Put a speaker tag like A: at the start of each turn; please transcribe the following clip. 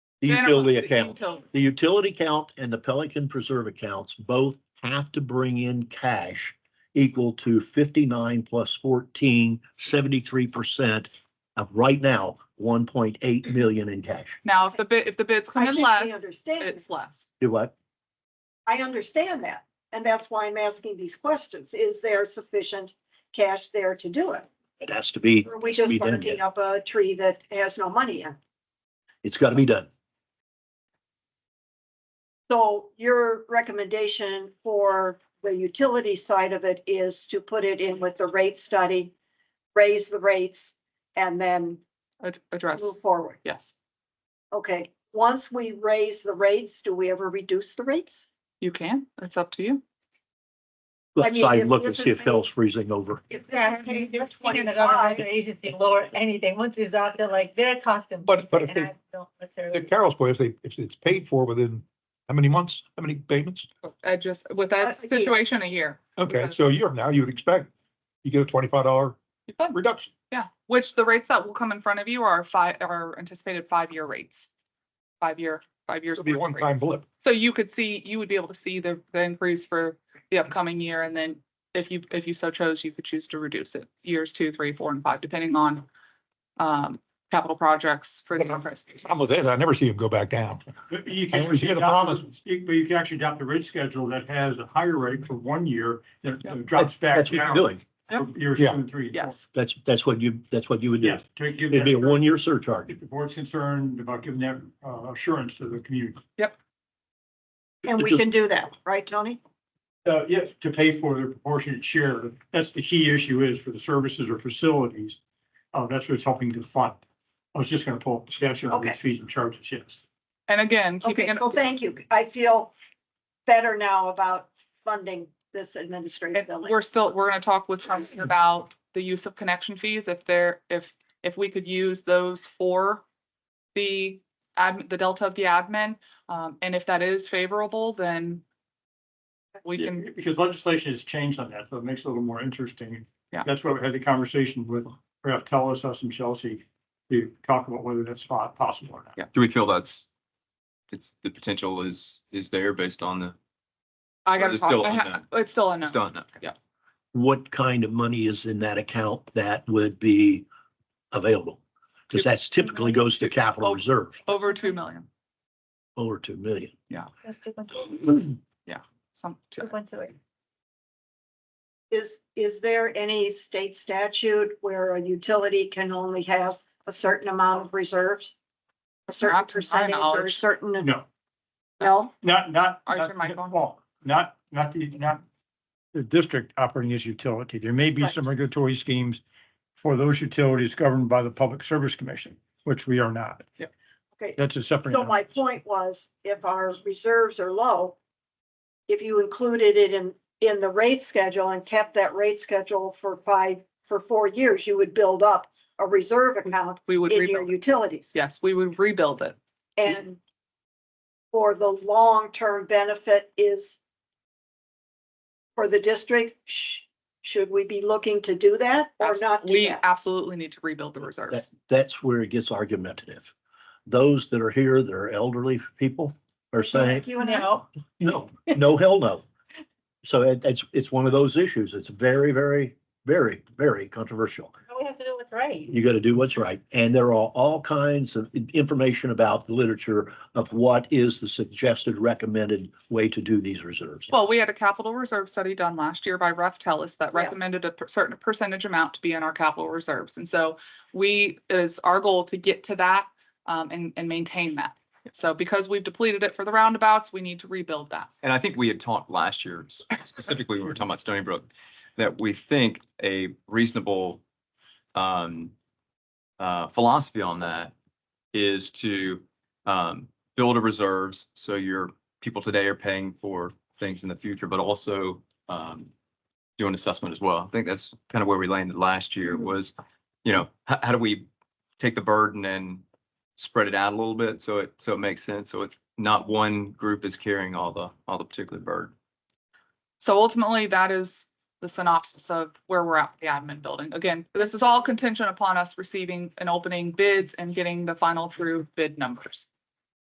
A: The
B: Minimum,
A: utility
B: the
A: account,
B: utility.
A: the utility account and the Pelican Preserve accounts both have to bring in cash equal to fifty-nine plus 14, 73 percent of right now, one point eight million in cash.
B: Now, if the bid, if the bids
C: I
B: come in
C: think I
B: less,
C: understand,
B: it's less.
A: Do what?
C: I understand that, and that's why I'm asking these questions. Is there sufficient cash there to do it?
A: It has to be,
C: Or are we
A: We
C: just
A: didn't
C: barking
A: get-
C: up a tree that has no money in?
A: it's gotta be done.
C: So your recommendation for the utility side of it is to put it in with the rate study, raise the rates, and then
B: Ad-
C: move
B: Address,
C: forward.
B: yes.
C: Okay, once we raise the rates, do we ever reduce the rates?
B: You can, it's up to you.
A: Let's
C: mean,
A: try
C: if
A: and look and
C: this
A: see
C: is
A: if hell's freezing over.
C: If this is
D: Yeah, you-
C: paid
D: you're
C: in
D: seeing the government
C: 25,
D: agency lower anything, once it's out there, like, they're costing.
E: But- but if
D: And
E: they-
D: I don't
E: To
D: necessarily,
E: Carol's point, if they, if it's paid for within how many months, how many payments?
B: I just, with that
C: That's a year.
B: situation, a year.
E: Okay, so a year from now, you would expect you get a twenty-five dollar
B: You could.
E: reduction.
B: Yeah, which the rates that will come in front of you are five, are anticipated five-year rates. Five-year, five years.
E: It'll be a
B: worth of
E: one-time
B: rates.
E: blip.
B: So you could see, you would be able to see the, the increase for the upcoming year, and then if you, if you so chose, you could choose to reduce it, years two, three, four, and five, depending on um, capital projects for the.
E: But I'm-
B: enterprise.
E: Problem is, I never see them go back down.
F: But you
E: I
F: can
E: always hear the
F: adopt-
E: promises.
F: you- But you can actually adopt a rate schedule that has a higher rate for one year, then
B: Yeah.
F: it drops back
A: That's what you're
F: down.
A: doing.
F: for Years two
E: Yeah.
F: and three. and four.
B: Yes,
A: That's, that's what you, that's what you would do.
F: Yes, to give
A: It'd be a
F: that,
A: one-year surcharge.
F: if the board's concerned about giving that uh, assurance to the community.
C: and we can do that, right, Tony?
F: Uh, yes, to pay for their proportionate share, that's the key issue is for the services or facilities. Uh, that's what it's helping to fund. I was just gonna pull up the statute on
C: Okay.
F: these fees and charges, yes.
B: and again, keeping
C: Okay,
B: it.
C: so thank you. I feel better now about funding this administrative
B: And
C: building.
B: we're still, we're gonna talk with Tom about the use of connection fees, if there, if, if we could use those for the admin, the delta of the admin, um, and if that is favorable, then we can,
F: Because legislation has changed on that, so it makes it a little more interesting.
B: Yeah.
F: That's why we had the conversation with, perhaps tell us, us and Chelsea, to talk about whether that's po- possible or not.
G: Do we feel that's, it's, the potential is, is there based on the,
B: I gotta
G: It's
B: talk,
G: still
B: I ha-
G: unknown.
B: it's still unknown.
G: it's done? Okay.
A: what kind of money is in that account that would be available? Because that's typically goes to capital reserve,
B: Over two million,
A: over two million.
D: that's two point two,
B: some,
D: two point two eight.
C: Is, is there any state statute where a utility can only have a certain amount of reserves? A certain
B: Not to my
C: percentage or a
B: knowledge.
C: certain,
F: No,
C: no?
F: not, not.
B: Arthur,
F: not-
B: Michael?
F: Well, not, not the, not the district operating as utility. There may be some regulatory schemes for those utilities governed by the Public Service Commission, which we are not.
C: Okay,
F: That's a separate.
C: so my point was, if our reserves are low, if you included it in, in the rate schedule and kept that rate schedule for five, for four years, you would build up a reserve account
B: we would
C: in your
B: rebuild, it.
C: utilities.
B: yes, we would rebuild it.
C: And for the long-term benefit is for the district, sh- should we be looking to do that or
B: Abs-
C: not do
B: We
C: that?
B: absolutely need to rebuild the
A: That,
B: reserves.
A: that's where it gets argumentative. Those that are here, that are elderly people are saying,
C: You and I,
D: No,
A: no, no, hell no. So it, it's, it's one of those issues. It's very, very, very, very controversial.
D: all we have to do what's right.
A: You got to do what's right. And there are all kinds of in- information about the literature of what is the suggested recommended way to do these reserves.
B: Well, we had a capital reserve study done last year by Ref Tellis that
C: Yeah.
B: recommended a per- certain percentage amount to be in our capital reserves. And so we, it is our goal to get to that um, and, and maintain that. So because we've depleted it for the roundabouts, we need to rebuild that.
G: And I think we had talked last year, s- specifically, when we were talking about Stony Brook, that we think a reasonable um, uh, philosophy on that is to um, build a reserves, so your people today are paying for things in the future, but also um, do an assessment as well. I think that's kind of where we landed last year was, you know, how, how do we take the burden and spread it out a little bit so it so it makes sense. So it's not one group is carrying all the all the particular burden.
B: So ultimately, that is the synopsis of where we're at with the admin building. Again, this is all contingent upon us receiving and opening bids and getting the final true bid numbers.